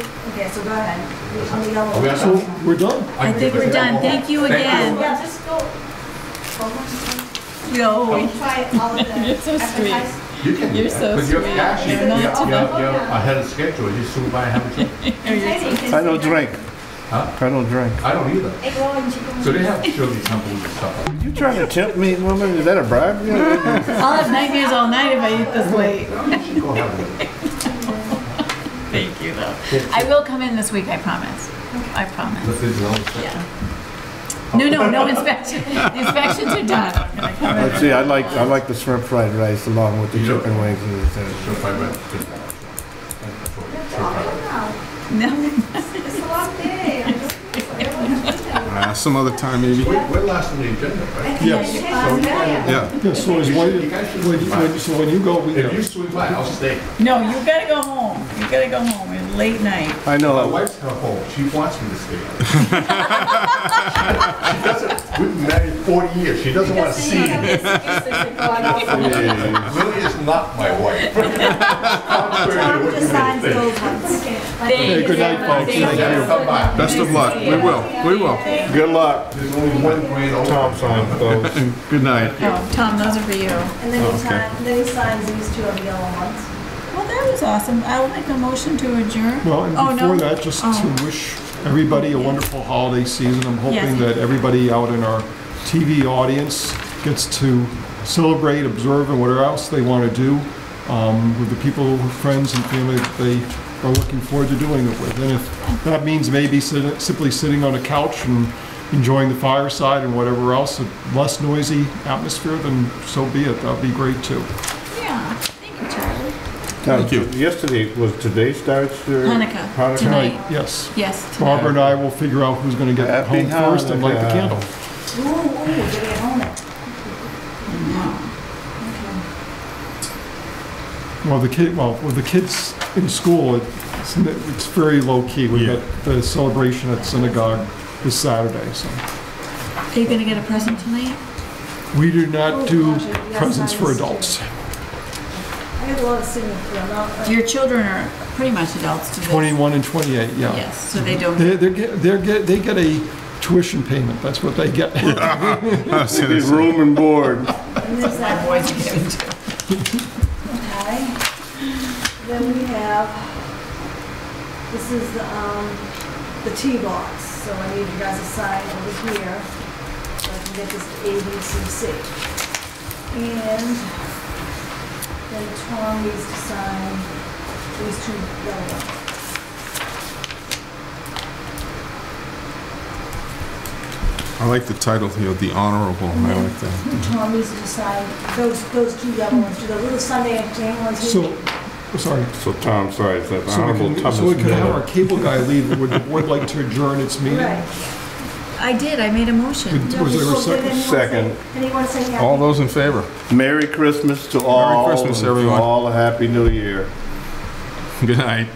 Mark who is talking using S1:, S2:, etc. S1: go ahead. On the yellow.
S2: Are we on
S3: So
S2: time?
S3: we're done.
S4: I think we're done. Thank you again.
S1: Yeah, just go. Hold
S4: Yo,
S1: on. Try all of the
S5: You're so sweet.
S1: advertise-
S2: You can do
S5: You're
S2: that,
S5: so
S2: But you're
S5: sweet.
S2: actually,
S5: You're
S2: you're,
S5: not
S2: you're,
S1: too-
S2: you're ahead of schedule, you still buy have a drink.
S1: Exciting.
S3: I don't drink.
S2: Huh?
S3: I don't drink.
S2: I don't either.
S1: Egg roll and chicken.
S2: So they have chili temples and stuff.
S3: You trying to tempt me, woman? Is that a bribe? Yeah.
S5: I'll have nightmares all night if I eat this late.
S2: You should go have one.
S5: Thank you, though. I will come in this week, I promise. I promise,
S2: This is your own thing.
S5: yeah. No, no, no inspection. The inspections are done. I'm gonna come in.
S3: Let's see, I like, I like the shrimp fried rice along with the
S2: You do.
S3: chicken wings and the thing.
S2: So if I went to- That's what- so if I-
S1: Oh, Wow,
S5: No,
S1: It's a long day. I don't know.
S6: Uh, Some other time, maybe.
S2: We're, we're last on the agenda, right?
S6: Yes.
S2: So we-
S6: Yeah.
S3: Yeah, so
S2: is when- when- when-
S3: so when you go, we
S2: If you swing by, I'll stay.
S5: no, you gotta go home. You gotta go home. It's late night.
S3: I
S2: My
S3: know,
S2: wife's come home, she wants me to stay. She doesn't, we've been married 40 years, she doesn't want to see me. Lily is not my wife. Contrary to what you may think.
S5: Hey,
S3: good night, folks.
S2: You gotta come by.
S6: Best of luck. We will. We will.
S3: good luck.
S2: There's only one grade over.
S3: Tom signed those.
S6: Good night.
S5: Oh, Tom, those are for you. Well,
S1: And then he signs, then he signs these two of the yellow ones.
S5: that was awesome. I will make a motion to adjourn.
S7: Well, and
S5: Oh, no.
S7: before that, just
S5: Oh.
S7: to wish everybody a wonderful holiday season. I'm
S5: Yes.
S7: hoping that everybody out in our TV audience gets to celebrate, observe, and whatever else they want to do um, with the people, friends, and family that they are looking forward to doing it with. And if that means maybe sit- simply sitting on a couch and enjoying the fireside and whatever else, a less noisy atmosphere, then so be it. That'd be great too.
S5: Yeah, thank you, Charlie.
S3: Thank you. Yesterday, was today starts your?
S5: Hanukkah,
S3: Hanukkah?
S5: tonight.
S7: Yes.
S5: Yes.
S7: Barbara and I will figure out who's going to get
S3: Happy
S7: home first and light the
S3: Hanukkah.
S7: candle.
S1: Ooh, ooh, did we own it?
S7: Well, the kid, well, with the kids in school, it's, it's very low key. We've got the celebration at synagogue this Saturday, so.
S5: Are you gonna get a present tonight?
S7: We do not
S1: Oh,
S7: do
S1: gosh, yes,
S7: presents
S1: I
S7: for
S1: see.
S7: adults.
S1: I got a lot of singing for them. I'll-
S5: Your children are pretty much adults to this.
S7: 21 and 28, yeah.
S5: Yes, so they don't.
S7: They, they're, get- they're, get- they get a tuition payment, that's what they get.
S6: I was gonna
S3: Did
S6: say.
S3: room and board.
S1: And there's that
S5: Boys
S1: one.
S5: are getting two.
S1: Okay. Then we have, this is the, um, the tee box, so I need you guys to sign over here, so I can get this to A, B, C, C. And then Tom needs to sign these two yellow ones.
S6: I like the title here, The Honorable. I like that.
S1: Tom needs to sign those, those two yellow ones, do the little Sunday afternoon ones.
S7: So, oh, sorry.
S3: So Tom, sorry, it's that
S7: So we
S3: honorable
S7: can, so we can have our cable guy leave, would the board like to adjourn its meeting?
S1: Right.
S5: I did, I made a motion.
S7: Was there a second?
S3: Second.
S1: Anyone say happy?
S6: All those in favor?
S3: Merry Christmas to all.
S6: Christmas,
S3: and to
S6: everyone.
S3: All a happy new year.
S6: Good night.